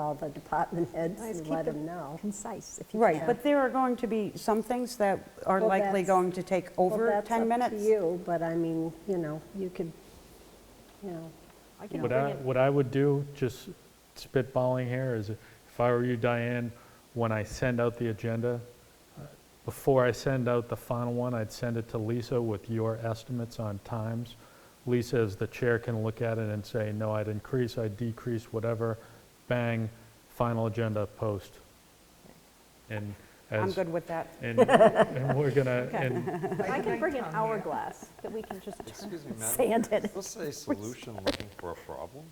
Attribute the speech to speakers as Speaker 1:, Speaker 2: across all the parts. Speaker 1: all the department heads
Speaker 2: Let's
Speaker 1: and
Speaker 2: keep
Speaker 1: let
Speaker 2: it
Speaker 1: them know.
Speaker 2: Concise, if you
Speaker 3: Right,
Speaker 2: can.
Speaker 3: but there are going to be some things that are
Speaker 1: Well,
Speaker 3: likely
Speaker 1: that's-
Speaker 3: going to take over 10
Speaker 1: Well, that's
Speaker 3: minutes.
Speaker 1: up to you, but I mean, you know, you could, you know,
Speaker 2: I can
Speaker 4: What
Speaker 2: bring
Speaker 4: I,
Speaker 2: it-
Speaker 4: what I would do, just spitballing here, is if I were you, Diane, when I send out the agenda, uh, before I send out the final one, I'd send it to Lisa with your estimates on times. Lisa, as the chair, can look at it and say, no, I'd increase, I'd decrease, whatever, bang, final agenda post. And
Speaker 3: I'm
Speaker 4: as,
Speaker 3: good with that.
Speaker 4: and and we're gonna, and
Speaker 2: I can bring an hourglass that we can just turn.
Speaker 5: Excuse me, madam.
Speaker 2: Sand it.
Speaker 5: Let's say solution looking for a problem.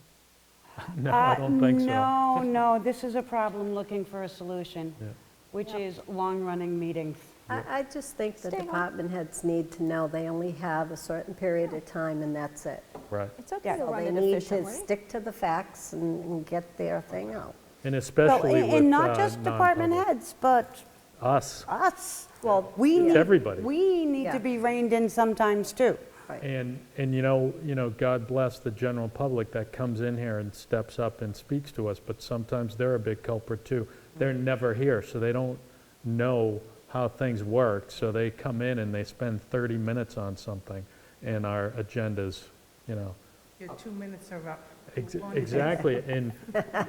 Speaker 4: no, I don't think so.
Speaker 3: Uh, No, no, this is a problem looking for a solution,
Speaker 4: Yeah.
Speaker 3: which is long-running meetings.
Speaker 1: I, I just think the
Speaker 2: Stay on.
Speaker 1: department heads need to know they only have a certain period of time and that's it.
Speaker 4: Right.
Speaker 2: It's okay to
Speaker 3: Yeah.
Speaker 1: So
Speaker 2: run
Speaker 1: they
Speaker 2: it
Speaker 1: need to
Speaker 2: efficiently.
Speaker 1: stick to the facts and and get their thing out.
Speaker 4: And
Speaker 3: Well,
Speaker 4: especially
Speaker 3: and-
Speaker 4: with uh,
Speaker 3: And not just department
Speaker 4: non-public.
Speaker 3: heads, but
Speaker 4: Us.
Speaker 3: us. Well, we
Speaker 4: It's
Speaker 3: need.
Speaker 4: everybody.
Speaker 3: We need
Speaker 1: Yeah.
Speaker 3: to be reined in sometimes, too.
Speaker 4: And, and you know, you know, God bless the general public that comes in here and steps up and speaks to us, but sometimes they're a big culprit too. They're never here, so they don't know how things work, so they come in and they spend 30 minutes on something, and our agendas, you know.
Speaker 6: Your two minutes are up.
Speaker 4: Ex-
Speaker 6: Move on to the-
Speaker 4: Exactly, and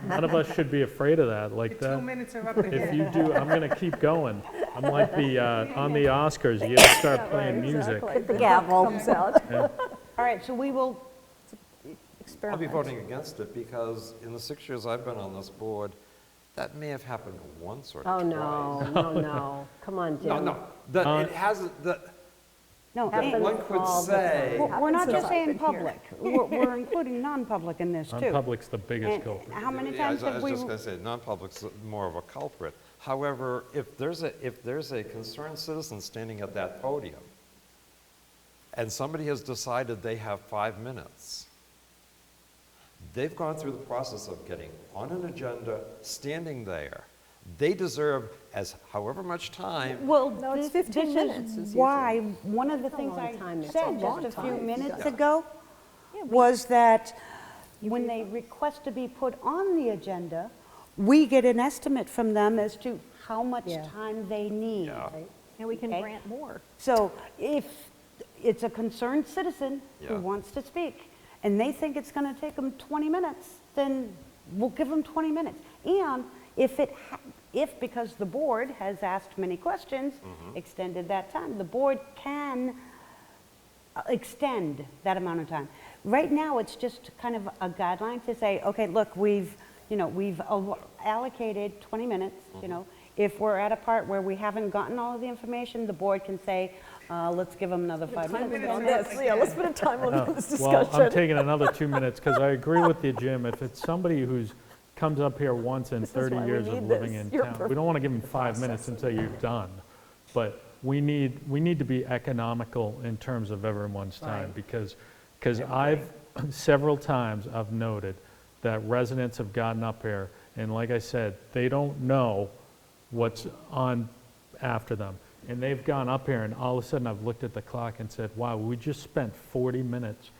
Speaker 4: none of us should be afraid of that,
Speaker 6: Your
Speaker 4: like that.
Speaker 6: two minutes are up ahead.
Speaker 4: If you do, I'm gonna keep going. I'm like the, uh, on the Oscars, you gotta start playing music.
Speaker 2: Exactly.
Speaker 1: The gavel comes out.
Speaker 3: All right, so we will
Speaker 5: I'll be
Speaker 2: Experiment.
Speaker 5: voting against it because in the six years I've been on this board, that may have happened once or
Speaker 1: Oh,
Speaker 5: twice.
Speaker 1: no, no, no. Come on, Jim.
Speaker 5: No, no, that, it hasn't, that,
Speaker 3: No,
Speaker 1: Happens
Speaker 3: and-
Speaker 5: one could
Speaker 1: all the
Speaker 5: say.
Speaker 1: time.
Speaker 3: we're we're not
Speaker 1: Happens
Speaker 3: just
Speaker 1: a lot.
Speaker 3: saying public, we're we're including non-public in this, too.
Speaker 4: Non-public's the biggest
Speaker 3: And
Speaker 4: culprit.
Speaker 3: How many
Speaker 5: Yeah, I
Speaker 3: times
Speaker 5: was-
Speaker 3: have we?
Speaker 5: I was just going to say, non-public's more of a culprit. However, if there's a, if there's a concerned citizen standing at that podium, and somebody has decided they have five minutes, they've gone through the process of getting on an agenda, standing there. They deserve as however much time
Speaker 3: Well,
Speaker 2: No, it's
Speaker 3: this
Speaker 2: 15
Speaker 3: this
Speaker 2: minutes is
Speaker 3: is
Speaker 2: usually-
Speaker 3: why, one of the
Speaker 1: a
Speaker 3: things
Speaker 1: long
Speaker 3: I
Speaker 1: time. It's a
Speaker 3: said
Speaker 1: long
Speaker 3: just a few
Speaker 1: time.
Speaker 3: minutes
Speaker 5: Yeah.
Speaker 3: ago was that when they request to be put on the agenda, we get an estimate from them as to how much
Speaker 1: Yeah.
Speaker 3: time they need.
Speaker 2: And we can
Speaker 3: Okay.
Speaker 2: grant more.
Speaker 3: So if it's a concerned citizen who
Speaker 5: Yeah.
Speaker 3: wants to speak, and they think it's going to take them 20 minutes, then we'll give them 20 minutes. And if it, ha- if, because the board has asked many questions, extended that time, the board can uh, extend that amount of time. Right now, it's just kind of a guideline to say, okay, look, we've, you know, we've al- allocated 20 minutes, you know. If we're at a part where we haven't gotten all of the information, the board can say, uh, let's give them another five minutes.
Speaker 6: minutes
Speaker 2: On
Speaker 6: are
Speaker 2: this,
Speaker 6: up
Speaker 2: yeah, let's
Speaker 6: ahead.
Speaker 2: put a time limit on this
Speaker 4: Uh, Well, I'm
Speaker 2: discussion.
Speaker 4: taking another two minutes, because I agree with you, Jim. If it's somebody who's comes up here once in
Speaker 2: is
Speaker 4: 30
Speaker 2: why we
Speaker 4: years of
Speaker 2: need
Speaker 4: living
Speaker 2: this.
Speaker 4: in
Speaker 2: You're
Speaker 4: town, we don't want to give them five minutes and say you're done. But we need, we need to be economical in terms of everyone's time, because, because I've, several times, I've noted that residents have gotten up here, and like I said, they don't know what's on after them. And they've gone up here, and all of a sudden, I've looked at the clock and said, wow, we just spent 40 minutes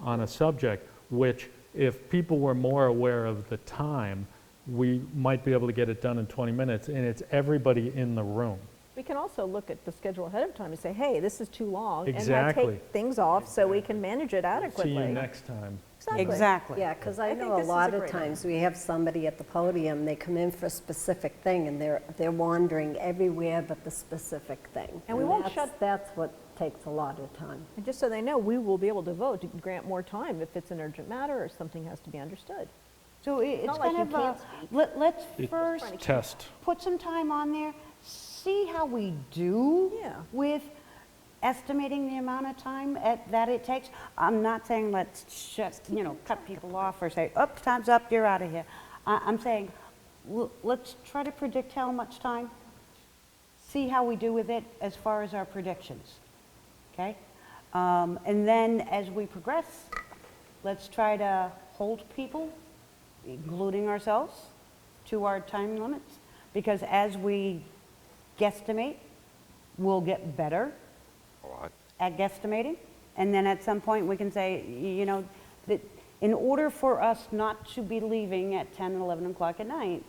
Speaker 4: on a subject, which if people were more aware of the time, we might be able to get it done in 20 minutes, and it's everybody in the room.
Speaker 2: We can also look at the schedule ahead of time and say, hey, this is too long. And
Speaker 4: Exactly.
Speaker 2: I take things off so we can manage it
Speaker 4: See
Speaker 2: adequately.
Speaker 4: you next time.
Speaker 3: Exactly.
Speaker 1: Yeah, because I
Speaker 2: I think
Speaker 1: know a
Speaker 2: this is a
Speaker 1: lot of
Speaker 2: great
Speaker 1: times we have somebody at the podium, they come in for a specific thing, and they're, they're wandering everywhere but the specific thing.
Speaker 2: And we won't
Speaker 1: that's-
Speaker 2: shut-
Speaker 1: That's what takes a lot of time.
Speaker 2: And just so they know, we will be able to vote to grant more time if it's an urgent matter or something has to be understood.
Speaker 3: So i- it's
Speaker 2: not like
Speaker 3: kind
Speaker 2: you
Speaker 3: of a,
Speaker 2: can't
Speaker 3: let- let's first
Speaker 4: Test.
Speaker 3: put some time on there, see how we do
Speaker 2: Yeah.
Speaker 3: with estimating the amount of time at, that it takes. I'm not saying let's shut, you know, cut people off or say, up, time's up, you're out of here. I, I'm saying, l- let's try to predict how much time, see how we do with it as far as our predictions, okay? Um, and then as we progress, let's try to hold people, including ourselves, to our time limits, because as we guesstimate, we'll get better
Speaker 5: Oh, I-
Speaker 3: at guesstimating, and then at some point, we can say, y- you know, that in order for us not to be leaving at 10, 11 o'clock at night,